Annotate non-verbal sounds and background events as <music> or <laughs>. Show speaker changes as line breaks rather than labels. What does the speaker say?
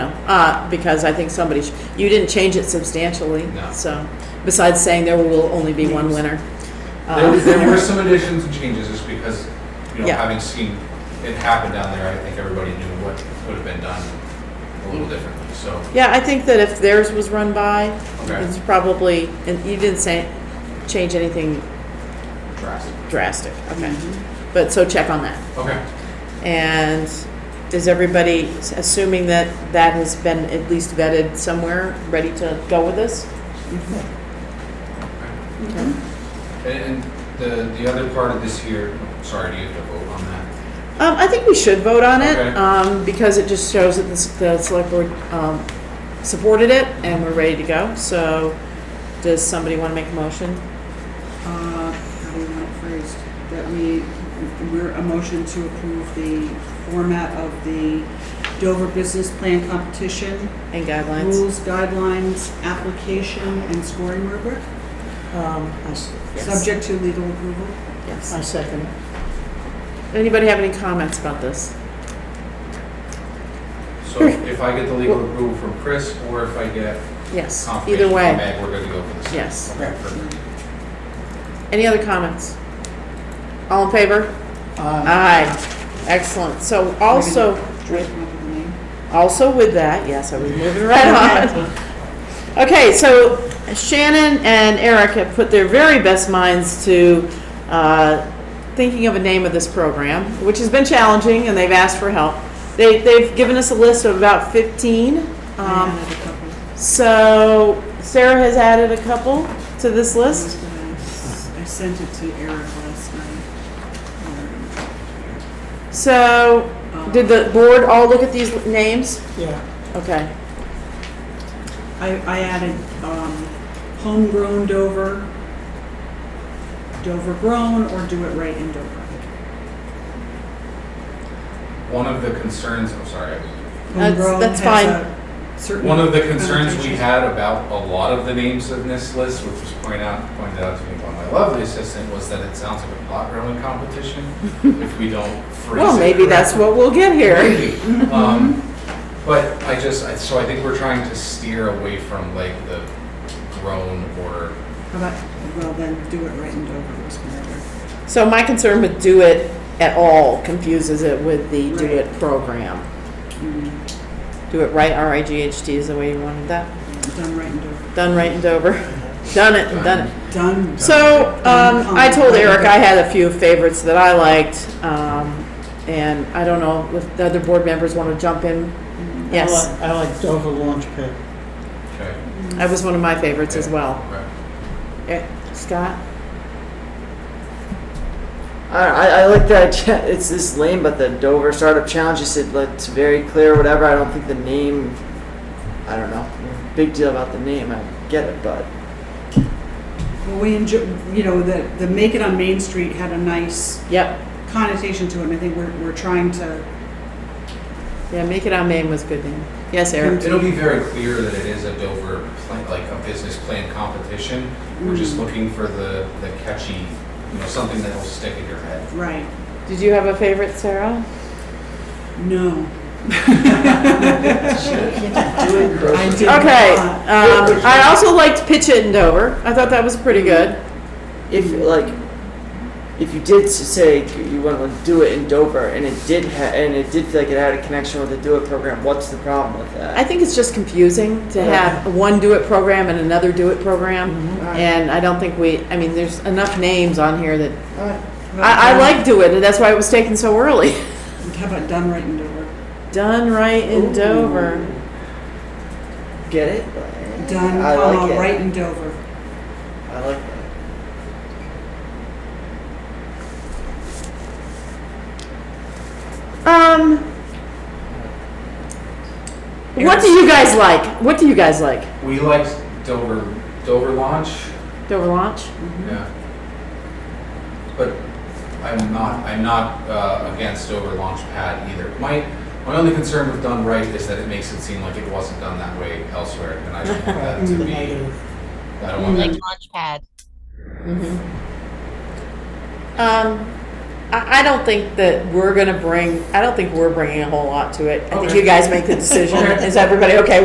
uh, because I think somebody, sh- you didn't change it substantially,
No.
so, besides saying there will only be one winner.
There,
Uh,
there were some additions and changes just because, you know,
Yeah.
having seen it happen down there, I think everybody knew what would have been done a little differently, so.
Yeah, I think that if theirs was run by,
Okay.
it's probably, and you didn't say, change anything
drastic.
drastic, okay?
Mm-hmm.
But, so check on that.
Okay,
And is everybody s- assuming that that has been at least vetted somewhere, ready to go with this?
and, and the, the other part of this here, sorry, do you have to vote on that?
Um, I think we should vote on it,
Okay.
um, because it just shows that the, s- the select board, um, supported it and we're ready to go. So, does somebody wanna make a motion?
Uh, How do you want it phrased? That we, we're a motion to approve the format of the Dover Business Plan Competition
and guidelines?
rules, guidelines, application, and scoring rubric,
Um, I s-
subject to legal approval.
Yes.
I second.
Anybody have any comments about this? <laughs>
So if I get the legal approval from Chris, or if I get
Yes,
confirmation
either
from
way,
Meg, we're good to go for this.
yes.
Okay, perfect.
Any other comments? All in favor?
Uh,
Aye. Excellent. So also,
Drake, come up with a name.
also with that, yes, I was moving right on. Okay, so Shannon and Eric have put their very best minds to uh, thinking of a name of this program, which has been challenging, and they've asked for help. They, they've given us a list of about 15.
I
Um,
added a couple.
So Sarah has added a couple to this list.
I sent it to Eric last night. Um,
So, did the board all look at these names?
yeah,
Okay,
I, I added, um, homegrown Dover, Dover grown, or do it right in Dover.
One of the concerns, I'm sorry, I-
That's-
Homegrown
that's
has
fine.
a Certain.
One of the concerns we
connotation.
had about a lot of the names of this list, which was pointed out, pointed out to me by my lovely assistant, was that it sounds like a pot grilling competition if we don't phrase it.
well, maybe that's what we'll get here.
correctly. Maybe. Um, But I just, I- so I think we're trying to steer away from like the grown or,
How about, well, then do it right in Dover was my other.
So my concern with do it at all confuses it with the do it program. Do it right, R I G H T is the way you wanted that.
Done right in Dover.
Done right in Dover. <laughs> Done it, and done it.
Done.
So,
Oh,
um, I told Eric I had a few favorites that I liked, um, and I don't know if the other board members want to jump in. Yes,
I like- I like Dover launch pad.
okay,
that was one of my favorites as well.
okay.
Eh, Scott?
I, I I like that. idea. <laughs> It's this lame, but the Dover Startup Challenge. You said like, it's very clear, whatever. I don't think the name. I don't know. Big deal about the name. I get it, but
Well, we enjoy, you know, the, the Make It on Main Street had a nice
Yep,
connotation to it, and I think we're, we're trying to,
yeah, Make It On Main was good then. Yes,
Mm-hmm.
Eric?
It'll be very clear that it is a Dover, plan- like a business plan competition. We're just
Mm.
looking for the, the catchy, you know, something that'll stick in your head.
right,
Did you have a favorite, Sarah?
no.
doing
I
grocery.
did
Okay.
not.
Um, I also liked Pitch It in Dover. I thought that was pretty good.
If like, if you did s- say you want to do it in Dover, and it did, ha- and it did feel like it had a connection with the Do It program, what's the problem with
I
that?
think it's just confusing to have one do it program and another do it program.
Mm-hmm.
And I don't think we, I mean, there's enough names on here that,
All right.
I, I like do it, and that's why it was taken so early. <laughs>
How about Done Right in Dover?
Done right in
Ooh.
Dover.
Get it?
Done,
I like
comma,
it.
right in Dover.
I like that.
Um, what do you guys like? What do you guys like?
We liked Dover, Dover launch.
Dover launch?
Yeah. But I'm not, I'm not uh, against over Launchpad either. My, my only concern with done right is that it makes it seem like it wasn't done that way elsewhere, and I don't want that to be, I don't want
like
that to
launchpad.
Um, I, I don't think that we're gonna bring, I don't think we're bringing a whole lot to it. I think
Okay.
<laughs>
you guys make the decision.
Okay.
Is everybody okay